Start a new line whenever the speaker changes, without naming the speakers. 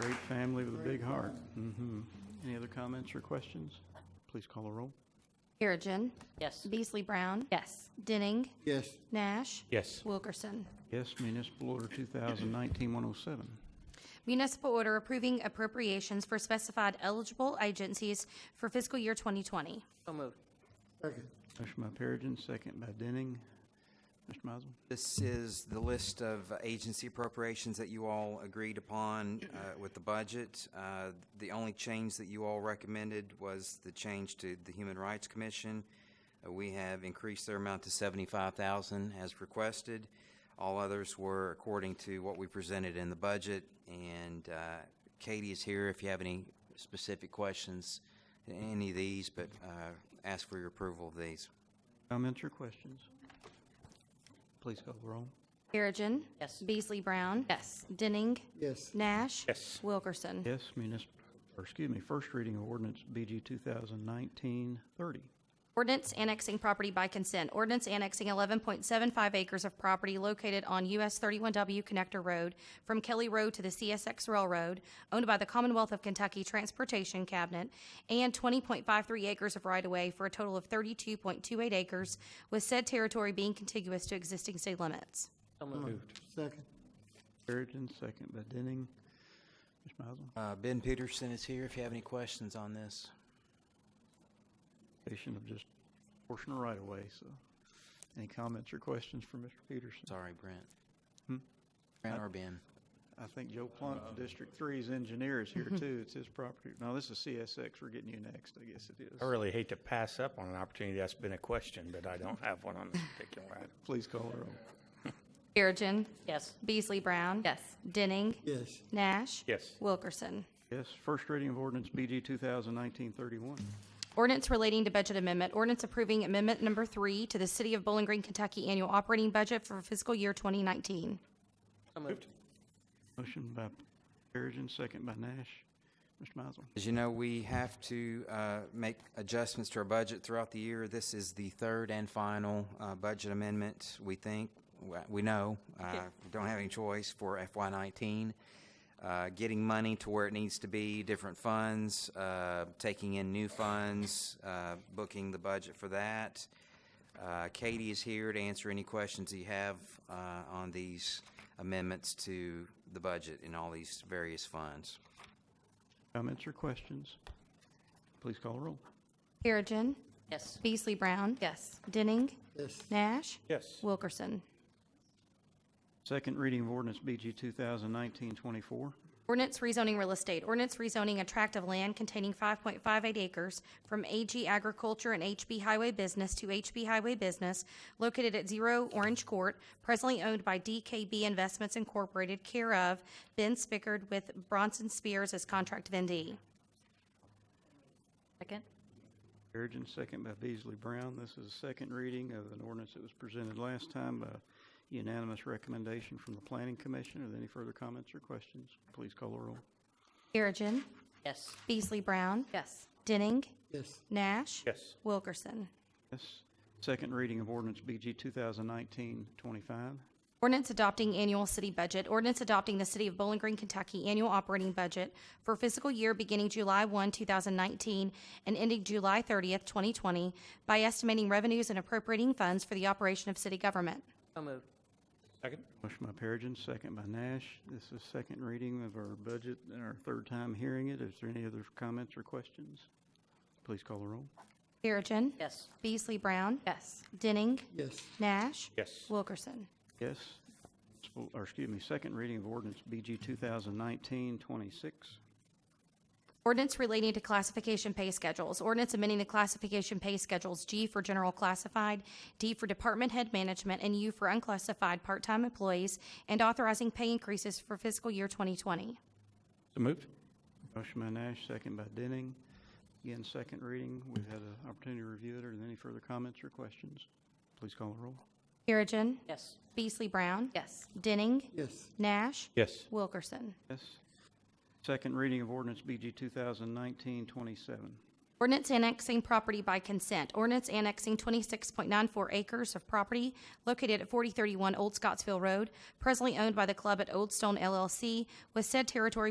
Great family with a big heart. hmm Any other comments or questions? Please call a roll.
Perigin.
Yes.
Beasley Brown.
Yes.
Denning.
yes,
Nash.
Yes.
Wilkerson.
Yes, municipal order 2019-107.
Municipal order approving appropriations for specified eligible agencies for fiscal year 2020.
So moved.
second,
Motion by Perigin, second by Denning. Mr. Mizel,
This is the list of agency appropriations that you all agreed upon uh, with the budget. Uh, The only change that you all recommended was the change to the Human Rights Commission. Uh, We have increased their amount to seventy-five thousand as requested. All others were according to what we presented in the budget, and uh, Katie is here if you have any specific questions to any of these, but uh, ask for your approval of these.
comments or questions? Please call the roll.
Perigin.
Yes.
Beasley Brown.
Yes.
Denning.
yes,
Nash.
Yes.
Wilkerson.
Yes, municipal, or excuse me, first reading of ordinance BG 2019-30.
Ordinance annexing property by consent. Ordinance annexing 11.75 acres of property located on US 31W Connector Road from Kelly Road to the CSX Railroad, owned by the Commonwealth of Kentucky Transportation Cabinet, and 20.53 acres of right-of-way for a total of 32.28 acres, with said territory being contiguous to existing state limits.
So moved.
second,
Perigin, second by Denning. Mr. Mizel,
Uh, Ben Peterson is here if you have any questions on this.
patient of just portion of right away. so. Any comments or questions for Mr. Peterson?
Sorry, Brent. Brent or Ben?
I think Joe Plunk, from District Three's engineer is here too. It's his property. No, this is CSX. We're getting you next, I guess it
I
is.
really hate to pass up on an opportunity that's been a question, but I don't have one on this particular item.
Please call the roll.
Perigin.
Yes.
Beasley Brown.
Yes.
Denning.
yes,
Nash.
Yes.
Wilkerson.
Yes, first reading of ordinance BG 2019-31.
Ordinance relating to budget amendment. Ordinance approving amendment number three to the City of Bowling Green, Kentucky annual operating budget for fiscal year 2019.
So moved.
Motion by Perigin, second by Nash. Mr. Mizel.
As you know, we have to uh, make adjustments to our budget throughout the year. This is the third and final uh, budget amendment, we think, We- we know, uh, we don't have any choice for FY19. Uh, Getting money to where it needs to be, different funds, uh, taking in new funds, uh, booking the budget for that. Uh, Katie is here to answer any questions that you have uh, on these amendments to the budget in all these various funds.
Comments or questions? Please call the roll.
Perigin.
Yes.
Beasley Brown.
Yes.
Denning.
yes,
Nash.
Yes.
Wilkerson.
Second reading of ordinance BG 2019-24.
Ordinance rezoning real estate. Ordinance rezoning a tract of land containing 5.58 acres from AG Agriculture and HB Highway Business to HB Highway Business located at Zero Orange Court, presently owned by DKB Investments Incorporated, care of Ben Spickard with Bronson Spears as contract vendee.
Second?
Perigin, second by Beasley Brown. This is a second reading of an ordinance that was presented last time by unanimous recommendation from the Planning Commission. Are there any further comments or questions? Please call the roll.
Perigin.
Yes.
Beasley Brown.
Yes.
Denning.
yes,
Nash.
Yes.
Wilkerson.
Yes. Second reading of ordinance BG 2019-25.
Ordinance adopting annual city budget. Ordinance adopting the City of Bowling Green, Kentucky annual operating budget for fiscal year beginning July 1, 2019 and ending July 30th, 2020 by estimating revenues and appropriating funds for the operation of city government.
So moved.
Second?
Motion by Perigin, second by Nash. This is second reading of our budget and our third time hearing it. Is there any other comments or questions? Please call the roll.
Perigin.
Yes.
Beasley Brown.
Yes.
Denning.
yes,
Nash.
Yes.
Wilkerson.
Yes. Sp- Or excuse me, second reading of ordinance BG 2019-26.
Ordinance relating to classification pay schedules. Ordinance amending the classification pay schedules G for general classified, D for department head management, and U for unclassified part-time employees, and authorizing pay increases for fiscal year 2020.
So moved?
Motion by Nash, second by Denning. Again, second reading. We've had an opportunity to review it. Are there any further comments or questions? Please call the roll.
Perigin.
Yes.
Beasley Brown.
Yes.
Denning.
yes,
Nash.
Yes.
Wilkerson.
Yes. Second reading of ordinance BG 2019-27.
Ordinance annexing property by consent. Ordinance annexing 26.94 acres of property located at 4031 Old Scottsville Road, presently owned by the club at Old Stone LLC, with said territory